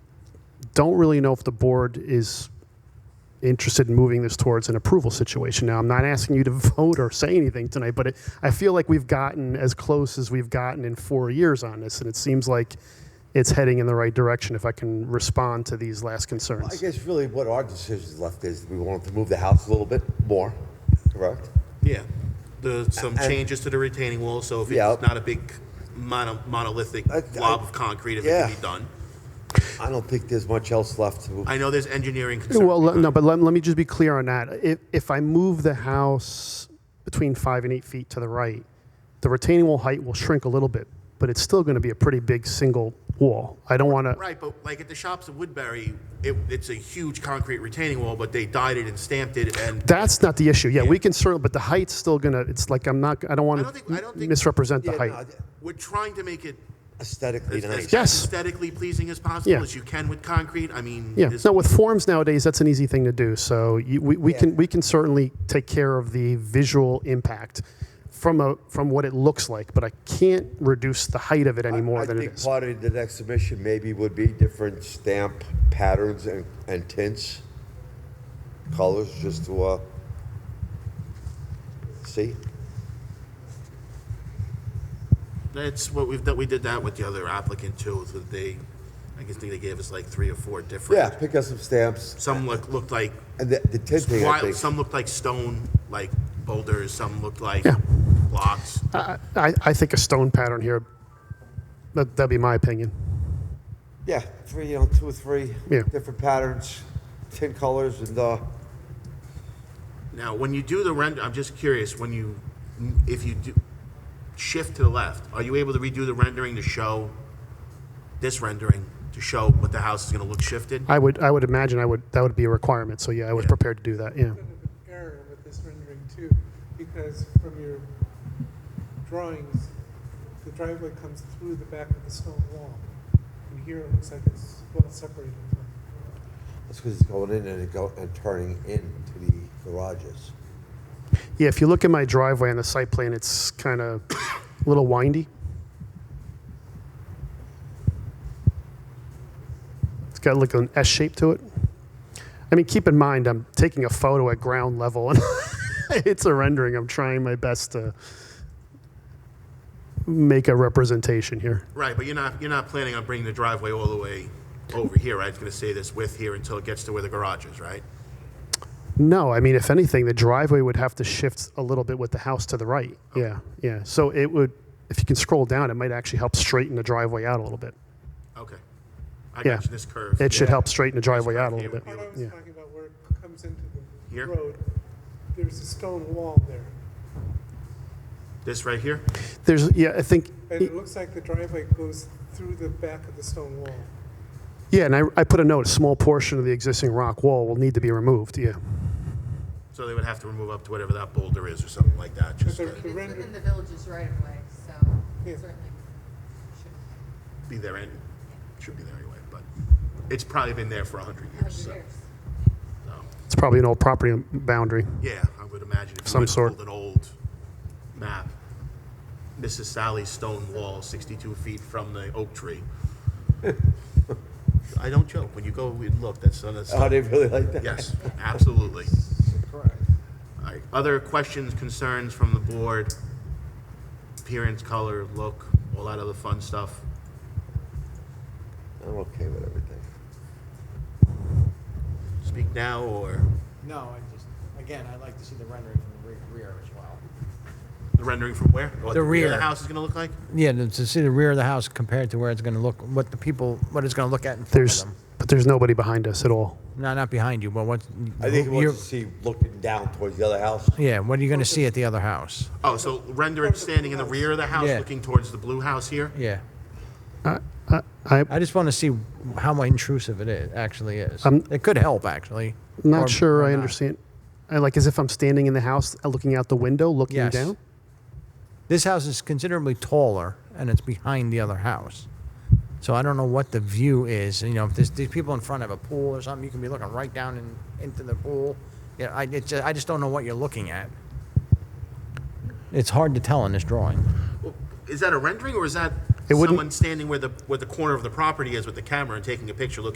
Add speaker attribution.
Speaker 1: don't really know if the board is interested in moving this towards an approval situation. Now, I'm not asking you to vote or say anything tonight, but it, I feel like we've gotten as close as we've gotten in four years on this, and it seems like it's heading in the right direction if I can respond to these last
Speaker 2: I
Speaker 1: concerns.
Speaker 2: guess really what our decision left is, we wanted to move the house a little bit more, correct?
Speaker 3: Yeah, the, some
Speaker 2: And-
Speaker 3: changes to the retaining wall, so if
Speaker 2: Yeah.
Speaker 3: it's not a big mono- monolithic
Speaker 2: I- I-
Speaker 3: blob of concrete, if it can
Speaker 2: Yeah.
Speaker 3: be done.
Speaker 2: I don't think there's much else left to move.
Speaker 3: I know there's engineering concerns.
Speaker 1: Well, le-
Speaker 3: behind
Speaker 1: no,
Speaker 3: it.
Speaker 1: but let, let me just be clear on that. If, if I move the house between five and eight feet to the right, the retaining wall height will shrink a little bit, but it's still going to be a pretty big single wall. I don't want to.
Speaker 3: Right, but like at the shops at Woodbury, it, it's a huge concrete retaining wall, but they dyed it and stamped it and.
Speaker 1: That's not the issue. Yeah, we can certainly, but the height's still gonna. It's like I'm not. I don't
Speaker 3: I
Speaker 1: want
Speaker 3: don't think- I don't
Speaker 1: to
Speaker 3: think-
Speaker 1: misrepresent the
Speaker 2: Yeah,
Speaker 1: height.
Speaker 2: no,
Speaker 3: We're trying to make it
Speaker 2: Aesthetically
Speaker 3: as
Speaker 2: nice.
Speaker 3: as
Speaker 1: Yes.
Speaker 3: aesthetically pleasing as possible
Speaker 1: Yeah.
Speaker 3: as you can with concrete. I mean.
Speaker 1: yeah.
Speaker 3: this-
Speaker 1: No, with forms nowadays, that's an easy thing to do. So you, we, we
Speaker 2: Yeah.
Speaker 1: can we can certainly take care of the visual impact from a from what it looks like, but I can't reduce the height of it any more
Speaker 2: I
Speaker 1: than it
Speaker 2: think
Speaker 1: is.
Speaker 2: part of the next submission maybe would be different stamp patterns and, and tints, colors, just to, uh, see?
Speaker 3: That's what we've done, we did that with the other applicant too, so they, I guess they gave us like three or four
Speaker 2: Yeah,
Speaker 3: different.
Speaker 2: pick up some stamps,
Speaker 3: Some look, looked like
Speaker 2: and the, the tinting, I
Speaker 3: Wild,
Speaker 2: think.
Speaker 3: some looked like stone, like boulders, some looked like
Speaker 1: Yeah.
Speaker 3: blocks.
Speaker 1: I, I, I think a stone pattern here. That that'd be my opinion.
Speaker 2: Yeah, three, you know, two or three
Speaker 1: Yeah.
Speaker 2: different patterns, tin colors, and, uh,
Speaker 3: Now, when you do the render, I'm just curious, when you, if you do, shift to the left, are you able to redo the rendering to show, this rendering, to show what the house is gonna look shifted?
Speaker 1: I would I would imagine I would that would be a requirement. So yeah, I was
Speaker 3: Yeah.
Speaker 1: prepared to do that. Yeah.
Speaker 4: bit of an error with this rendering too, because from your drawings, the driveway comes through the back of the stone wall. And here it looks like it's well separated from.
Speaker 2: that's because it's going in and it go, and turning into the garages.
Speaker 1: Yeah, if you look at my driveway on the site plan, it's kind of a little windy. It's got like an S shape to it. I mean, keep in mind, I'm taking a photo at ground level and it's a rendering. I'm trying my best to make a representation here.
Speaker 3: Right, but you're not, you're not planning on bringing the driveway all the way over here, right? It's gonna say this width here until it gets to where the garage is, right?
Speaker 1: No, I mean, if anything, the driveway would have to shift a little bit with the house to the right. Yeah, yeah. So it would, if you can scroll down, it might actually help straighten the driveway out a little bit.
Speaker 3: Okay. I
Speaker 1: Yeah.
Speaker 3: got you this curve.
Speaker 1: It should help straighten the driveway out a
Speaker 3: right
Speaker 1: little
Speaker 3: here
Speaker 1: bit.
Speaker 4: What I was
Speaker 1: Yeah.
Speaker 4: talking about where it comes into the
Speaker 3: Here?
Speaker 4: road, there's a stone wall there.
Speaker 3: This right here?
Speaker 1: There's, yeah, I think,
Speaker 4: And it looks like the driveway goes through the back of the stone wall.
Speaker 1: yeah, and I, I put a note, a small portion of the existing rock wall will need to be removed, yeah.
Speaker 3: So they would have to remove up to whatever that boulder is or something like that, just
Speaker 4: But
Speaker 3: to
Speaker 4: they're-
Speaker 5: It's within
Speaker 4: Render-
Speaker 5: the village's right of way, so
Speaker 4: Yeah.
Speaker 5: certainly should
Speaker 3: be there and, should be there anyway, but it's probably been there for a hundred years,
Speaker 5: have
Speaker 3: so.
Speaker 5: years.
Speaker 3: so, um,
Speaker 1: It's probably an old property boundary.
Speaker 3: Yeah, I would imagine if you
Speaker 1: Some
Speaker 3: went and
Speaker 1: sort.
Speaker 3: pulled an old map, Mrs. Sally's stone wall, sixty-two feet from the oak tree. I don't joke, when you go and look, that's, uh, that's,
Speaker 2: Oh, they really like that?
Speaker 3: yes, absolutely. All right, other questions, concerns from the board? Appearance, color, look, all that other fun stuff?
Speaker 2: I'm okay with everything.
Speaker 3: Speak now or?
Speaker 6: No, I just, again, I'd like to see the rendering from the re- rear as well.
Speaker 3: The rendering from where? Or What
Speaker 6: The
Speaker 3: of
Speaker 6: rear.
Speaker 3: the house is going to look like?
Speaker 6: Yeah, to to see the rear of the house compared to where it's going to look, what the people, what it's going to look at in front of
Speaker 1: There's,
Speaker 6: them.
Speaker 1: but there's nobody behind us at all.
Speaker 6: No, not behind you, but what,
Speaker 2: I think he
Speaker 6: you're,
Speaker 2: wants to see looking down towards the other house.
Speaker 6: yeah, what are you going to see at the other house?
Speaker 3: Oh, so render it standing in the rear of the house,
Speaker 6: Yeah.
Speaker 3: looking towards the blue house here?
Speaker 6: Yeah.
Speaker 1: I,
Speaker 6: I just want to see how much intrusive it is, actually is.
Speaker 1: I'm-
Speaker 6: It could help, actually.
Speaker 1: I'm
Speaker 6: or-
Speaker 1: not sure
Speaker 6: or
Speaker 1: I
Speaker 6: not.
Speaker 1: understand. I like, as if I'm standing in the house, uh, looking out the window, looking
Speaker 6: Yes.
Speaker 1: down?
Speaker 6: This house is considerably taller, and it's behind the other house. So I don't know what the view is, you know, if there's, these people in front of a pool or something, you can be looking right down in, into the pool. Yeah, I, it's, I just don't know what you're looking at. It's hard to tell in this drawing.
Speaker 3: Well, Is that a rendering or is that
Speaker 1: It wouldn't-
Speaker 3: someone standing where the, where the corner of the property is with the camera and taking a picture looking